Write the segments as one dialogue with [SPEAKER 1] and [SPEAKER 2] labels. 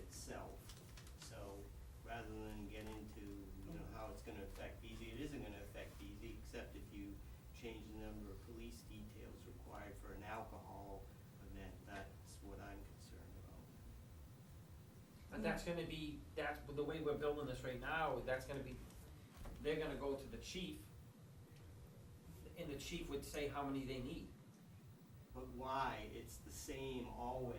[SPEAKER 1] itself. So rather than get into, you know, how it's gonna affect BZ, it isn't gonna affect BZ, except if you change the number of police details required for an alcohol event. That's what I'm concerned about.
[SPEAKER 2] But that's gonna be, that's, but the way we're building this right now, that's gonna be, they're gonna go to the chief, and the chief would say how many they need.
[SPEAKER 1] But why? It's the same always.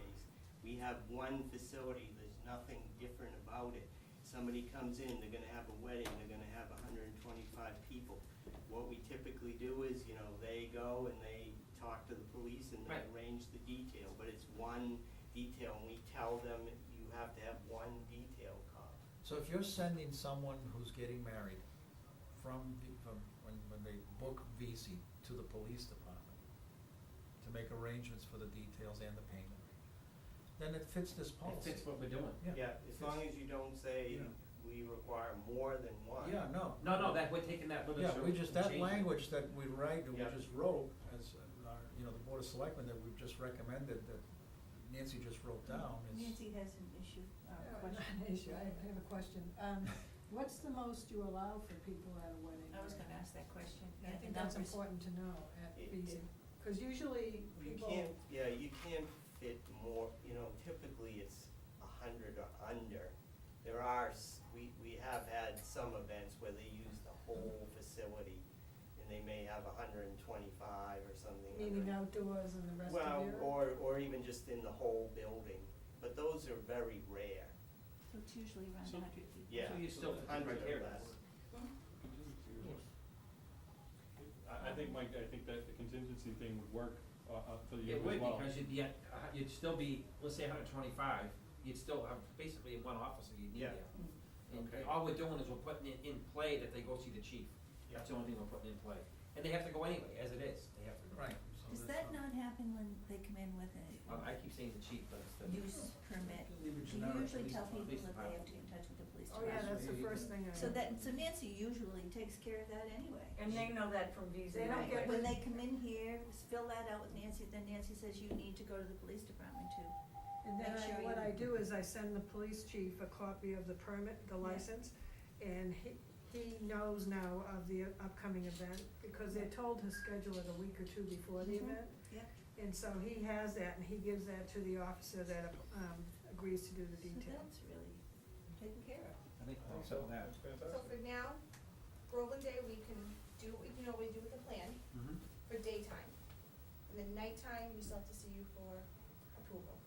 [SPEAKER 1] We have one facility, there's nothing different about it. Somebody comes in, they're gonna have a wedding, they're gonna have hundred and twenty-five people. What we typically do is, you know, they go and they talk to the police and they
[SPEAKER 2] Right.
[SPEAKER 1] arrange the detail, but it's one detail, and we tell them you have to have one detail cop.
[SPEAKER 3] So if you're sending someone who's getting married from, the- from, when, when they book VC to the police department to make arrangements for the details and the payment, then it fits this
[SPEAKER 2] It
[SPEAKER 3] policy.
[SPEAKER 2] fits what we're doing.
[SPEAKER 1] Yeah, as long as you don't say
[SPEAKER 3] Yeah.
[SPEAKER 1] we require more than one.
[SPEAKER 3] Yeah, no.
[SPEAKER 2] No, no, that, we're taking that
[SPEAKER 3] Yeah,
[SPEAKER 2] literature.
[SPEAKER 3] we just,
[SPEAKER 2] and
[SPEAKER 3] that
[SPEAKER 2] changing it.
[SPEAKER 3] language that we write, that we
[SPEAKER 1] Yeah.
[SPEAKER 3] just wrote as uh, our, you know, the board of selectmen that we've just recommended, that Nancy just wrote down is.
[SPEAKER 4] Nancy has an issue, uh,
[SPEAKER 5] Uh, Not
[SPEAKER 4] question.
[SPEAKER 5] an issue, I I have a question. Um, what's the most you allow for people at a wedding?
[SPEAKER 4] I was gonna ask that question.
[SPEAKER 5] I
[SPEAKER 4] yeah,
[SPEAKER 5] think
[SPEAKER 4] the
[SPEAKER 5] that's
[SPEAKER 4] numbers.
[SPEAKER 5] important to know at
[SPEAKER 1] It-
[SPEAKER 5] BZ,
[SPEAKER 1] it-
[SPEAKER 5] cause usually
[SPEAKER 1] You
[SPEAKER 5] people.
[SPEAKER 1] can't, yeah, you can't fit more, you know, typically it's a hundred or under. There are, s- we, we have had some events where they use the whole facility and they may have a hundred and twenty-five or something.
[SPEAKER 5] Meaning
[SPEAKER 1] 100.
[SPEAKER 5] outdoors and the rest of
[SPEAKER 1] Well,
[SPEAKER 5] your.
[SPEAKER 1] or, or even just in the whole building, but those are very rare,
[SPEAKER 4] So it's usually around
[SPEAKER 2] So-
[SPEAKER 4] hundred people.
[SPEAKER 1] yeah.
[SPEAKER 2] So you still fit the
[SPEAKER 1] hundred or
[SPEAKER 2] criteria.
[SPEAKER 1] less.
[SPEAKER 6] I, I think, Mike, I think that the contingency thing would work, uh, uh, for you
[SPEAKER 2] It
[SPEAKER 6] as well.
[SPEAKER 2] would, because you'd be at, uh, you'd still be, let's say hundred twenty-five, you'd still have basically one officer you'd need
[SPEAKER 1] Yeah.
[SPEAKER 2] there. And
[SPEAKER 1] Okay.
[SPEAKER 2] all we're doing is we're putting it in play that they go see the chief. That's the only thing we're putting in play. And they have to go anyway, as it is, they have to go.
[SPEAKER 3] Right. so
[SPEAKER 4] Does
[SPEAKER 3] that's
[SPEAKER 4] that not happen when they come in with a
[SPEAKER 2] Um, I keep saying the chief, but it's the.
[SPEAKER 4] use permit?
[SPEAKER 3] Leave it
[SPEAKER 4] You
[SPEAKER 3] generic,
[SPEAKER 4] usually
[SPEAKER 2] police
[SPEAKER 4] tell
[SPEAKER 2] department,
[SPEAKER 4] people
[SPEAKER 2] police
[SPEAKER 4] that they have
[SPEAKER 2] department.
[SPEAKER 4] to get in touch with the police
[SPEAKER 5] Oh, yeah,
[SPEAKER 4] department.
[SPEAKER 5] that's the first thing I.
[SPEAKER 4] So that, so Nancy usually takes care of that anyway.
[SPEAKER 7] And they know that from VZ.
[SPEAKER 5] They don't
[SPEAKER 4] Right,
[SPEAKER 5] get-
[SPEAKER 4] When they come in here, s- fill that out with Nancy, then Nancy says you need to go to the police department too.
[SPEAKER 5] And then
[SPEAKER 4] Make
[SPEAKER 5] I,
[SPEAKER 4] sure
[SPEAKER 5] what
[SPEAKER 4] you-
[SPEAKER 5] I do is I send the police chief a copy of the permit, the
[SPEAKER 4] Yeah.
[SPEAKER 5] license, and he, he knows now of the upcoming event, because they're told to schedule it a week or two before the
[SPEAKER 4] Mhm.
[SPEAKER 5] event.
[SPEAKER 4] Yep.
[SPEAKER 5] And so he has that, and he gives that to the officer that, um, agrees to do the
[SPEAKER 4] So
[SPEAKER 5] detail.
[SPEAKER 4] that's really taken care of.
[SPEAKER 2] I think also that.
[SPEAKER 8] So for now, Groveland Day, we can do, what we can always do with the plan
[SPEAKER 2] Mm-hmm.
[SPEAKER 8] for daytime. And then nighttime, we still have to see you for approval.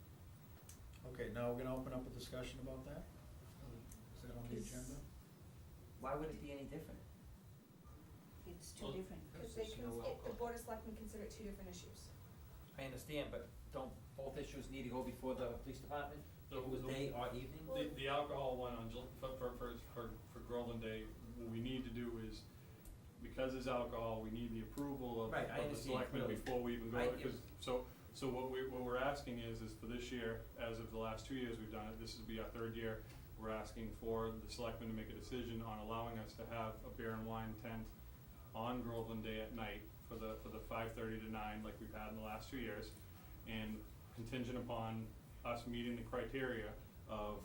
[SPEAKER 3] Okay, now we're gonna open up a discussion about that? Is that on the
[SPEAKER 4] Is-
[SPEAKER 3] agenda?
[SPEAKER 2] Why would it be any different?
[SPEAKER 4] It's two
[SPEAKER 6] Well,
[SPEAKER 4] different.
[SPEAKER 8] Because they
[SPEAKER 2] There's
[SPEAKER 8] can,
[SPEAKER 2] no
[SPEAKER 8] it- the
[SPEAKER 2] alcohol.
[SPEAKER 8] board of selectmen consider it two different issues.
[SPEAKER 2] I understand, but don't both issues need to go before the police department? If it was
[SPEAKER 6] The- the-
[SPEAKER 2] day or evening?
[SPEAKER 6] The, the alcohol one on, Jul- for, for, for, for for Groveland Day, what we need to do is, because it's alcohol, we need the approval of,
[SPEAKER 2] Right, I
[SPEAKER 6] of the
[SPEAKER 2] understand,
[SPEAKER 6] selectmen
[SPEAKER 2] clearly.
[SPEAKER 6] before we even go,
[SPEAKER 2] I-
[SPEAKER 6] because, so, so what we, what we're asking is, is for this year, as of the last two years we've done it, this would be our third year, we're asking for the selectmen to make a decision on allowing us to have a beer and wine tent on Groveland Day at night for the, for the five thirty to nine, like we've had in the last two years, and contingent upon us meeting the criteria of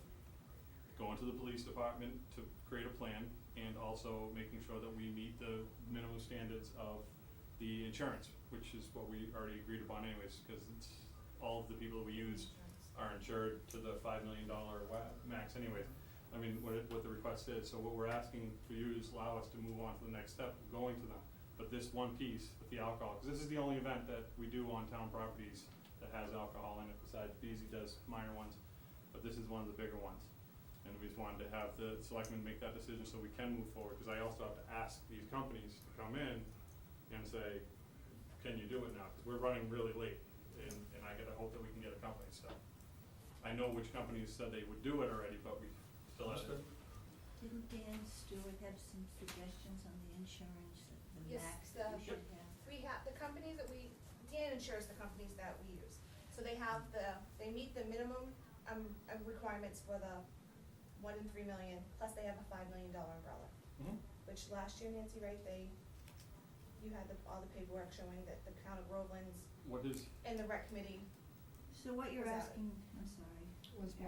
[SPEAKER 6] going to the police department to create a plan and also making sure that we meet the minimum standards of the insurance, which is what we already agreed upon anyways, because it's, all of the people that we use are insured to the five million dollar wa- max anyways. I mean, what it, what the request is, so what we're asking for you is allow us to move on to the next step, of going to them. But this one piece with the alcohol, because this is the only event that we do on town properties that has alcohol in it, besides Beasley does minor ones, but this is one of the bigger ones. And we just wanted to have the selectmen make that decision so we can move forward, because I also have to ask these companies to come in and say, can you do it now? Because we're running really late, and, and I gotta hope that we can get a company, so. I know which companies said they would do it already, but we still have to.
[SPEAKER 3] Understood.
[SPEAKER 4] Didn't Dan Stewart have some suggestions on the insurance, the
[SPEAKER 8] Yes,
[SPEAKER 4] max
[SPEAKER 8] the-
[SPEAKER 4] that we should have?
[SPEAKER 8] We have, the companies that we, Dan insures the companies that we use. So they have the, they meet the minimum, um, um, requirements for the one in three million, plus they have a five million dollar umbrella.
[SPEAKER 2] Mm-hmm.
[SPEAKER 8] Which last year, Nancy, right, they, you had the, all the paperwork showing that the town of Groveland's
[SPEAKER 6] What is,
[SPEAKER 8] and the rec committee
[SPEAKER 4] So what you're
[SPEAKER 8] Was that-
[SPEAKER 4] asking, I'm sorry.
[SPEAKER 5] Was
[SPEAKER 4] Mary,